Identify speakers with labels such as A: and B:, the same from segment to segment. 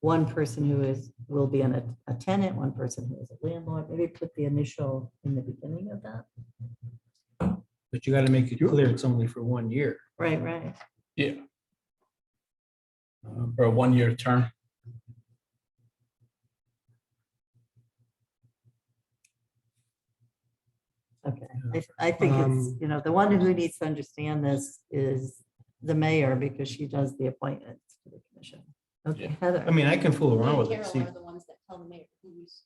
A: one person who is, will be an, a- a tenant, one person who is a landlord, maybe put the initial in the beginning of that.
B: But you gotta make it clear it's only for one year.
A: Right, right.
C: uh,
B: um,
C: for a one-year term.
A: Okay. I, I think it's,
D: Um,
A: you know, the one who needs to understand this is the mayor because she does the appointments to the commission. Okay, Heather.
B: I mean, I can fool around
E: Me and
B: with it,
E: Carol
B: see.
E: are the ones that tell the mayor who's.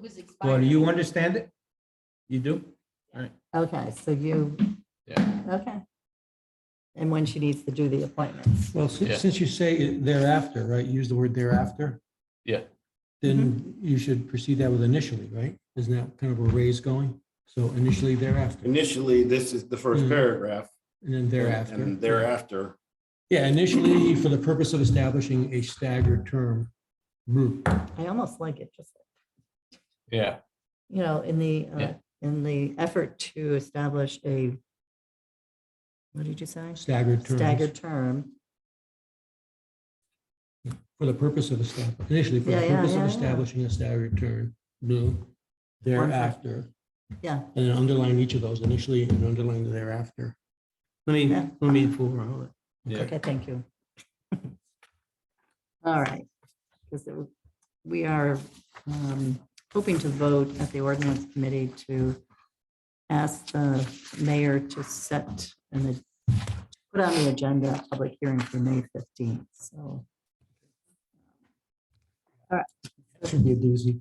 E: Who's expired.
B: Well, do you understand it? You do?
A: Okay, so you.
C: Yeah.
A: Okay. And when she needs to do the appointments.
D: Well,
C: Yeah.
D: since, since you say it thereafter, right, use the word thereafter.
C: Yeah.
D: Then
A: Mm-hmm.
D: you should proceed that with initially, right? Isn't that kind of where Ray's going? So initially thereafter, and
F: Initially, this is the first
D: Mhm.
F: paragraph.
D: then thereafter.
F: And thereafter,
D: Yeah, initially for the purpose of establishing a staggered term group.
A: I almost like it just,
C: Yeah,
A: you know, in the, uh,
C: Yeah.
A: in the effort to establish a, what did you say?
D: staggered terms.
A: Staggered term.
D: For the purpose of establishing, initially for
A: Yeah,
D: the
A: yeah,
D: purpose
A: yeah,
D: of
A: yeah.
D: establishing a staggered term, blue,
A: sec.
D: thereafter.
A: Yeah.
D: And then underline each of those initially and underline thereafter.
B: Let me,
A: Yeah.
B: let me fool around with it.
C: yeah.
A: Okay, thank you. All right, because we are um, hoping to vote at the ordinance committee to ask the mayor to set and put on the agenda a public hearing for May 15th, so.
D: Should be a doozy.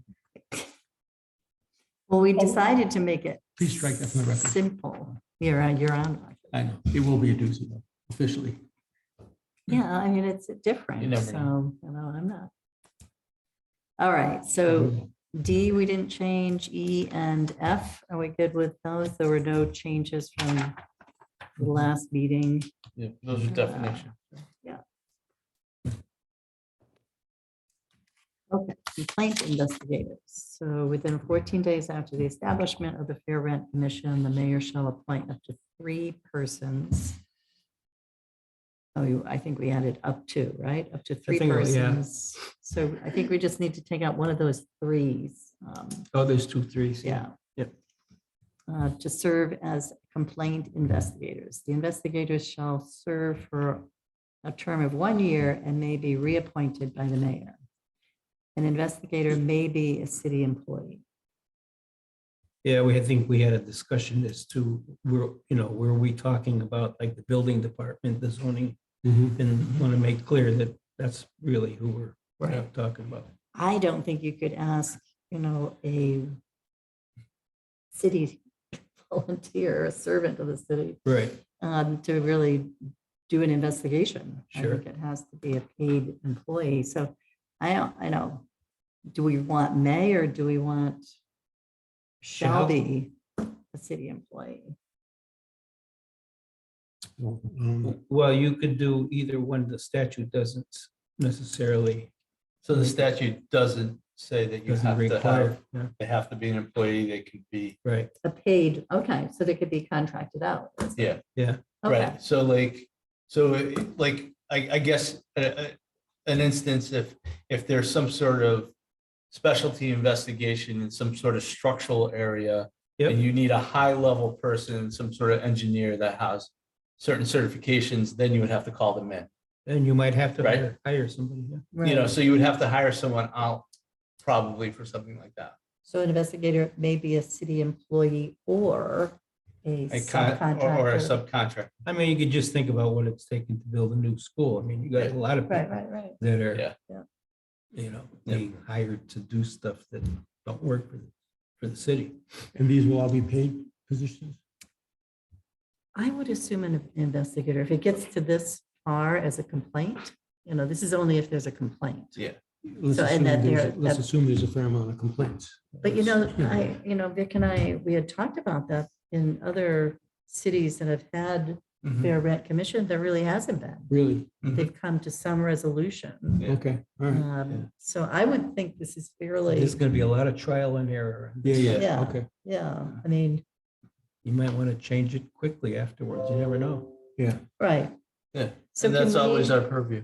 A: Well, we decided to make it.
D: Please strike that from the record.
A: Simple. You're on, you're on.
D: I know, it will be a doozy though, officially.
A: Yeah, I mean, it's
C: You
A: different,
C: never
A: so, you know, I'm not. All right, so D, we didn't change, E and F, are we good with those? There were no changes from the last meeting.
C: Yeah, those are definitions.
A: Okay, complaint investigators. So within fourteen days after the establishment of the Fair Rent Commission, the mayor shall appoint up to three persons. Oh, you- I think we added up to, right? Up to three
B: think, yeah.
A: persons. So I think we just need to take out one of those threes. um,
B: Oh, there's two, threes.
A: Yeah.
B: Yep.
A: Uh, To serve as complaint investigators. The investigators shall serve for a term of one year and may be reappointed by the mayor. An investigator may be a city employee.
B: Yeah, we, I think we had a discussion as to, were, you know, were we talking about like the building department, the zoning?
D: Mhm.
C: Mm-hmm.
B: And want to make clear that that's really who we're talking about.
A: I don't think you could ask, you know, a city volunteer, a servant of the city
B: Right.
A: um, to really do an investigation. I
B: Sure.
A: think it has to be a paid employee. So I don't, I know. Do we want may or do we want shall
B: Shall.
A: be a city employee?
D: Well, um,
B: Well, you could do either one. The statute doesn't necessarily.
C: So the statute doesn't say that you
B: doesn't
C: have to
B: require.
C: have,
B: Yeah,
C: they have to be an employee, they can be,
B: Right.
A: A paid, okay, so they could be contracted out. is it?
C: yeah,
A: Okay,
C: right. So like, so it- like, I, I guess, uh, uh, an instance, if, if there's some sort of specialty investigation in some sort of structural area,
B: Yep.
C: and you need a high-level person, some sort of engineer that has certain certifications, then you would have to call them in.
B: And you might have to
C: Right.
B: hire- hire somebody. yeah.
C: You know,
A: right.
C: so you would have to hire someone out probably for something like that.
A: So an investigator may be a city employee or a
C: A con, or- or a
A: subcontractor.
C: subcontract.
B: I mean, you could just think about what it's taken to build a new school. I mean, you got a lot of
A: Right,
B: people
A: right, right.
B: that are,
C: Yeah.
A: Yeah.
B: you know,
C: Yeah.
B: being hired to do stuff that don't work for, the- for the city.
D: And these will all be paid positions?
A: I would assume an investigator, if it gets to this far as a complaint, you know, this is only if there's a complaint.
D: Let's
A: So, and
D: assume
A: that
D: there's-
A: they're-
D: let's
A: that-
D: assume there's a fair amount of complaints.
A: But you know, I, you know, Vic and I, we had talked about that in other cities that have had
C: Mhm.
A: fair rent commission, there really hasn't
C: Mm-hmm.
A: been.
D: Really?
A: They've come to some resolution.
C: Yeah.
D: Okay, all right.
A: Um, So I would think this is fairly,
B: There's gonna be a lot of trial and error.
D: Yeah, yeah,
A: Yeah.
D: okay.
A: yeah, I mean,
B: You might want to change it quickly afterwards. You never know.
A: right.
C: Yeah,
A: So
C: And that's
A: can we-
C: always our purview.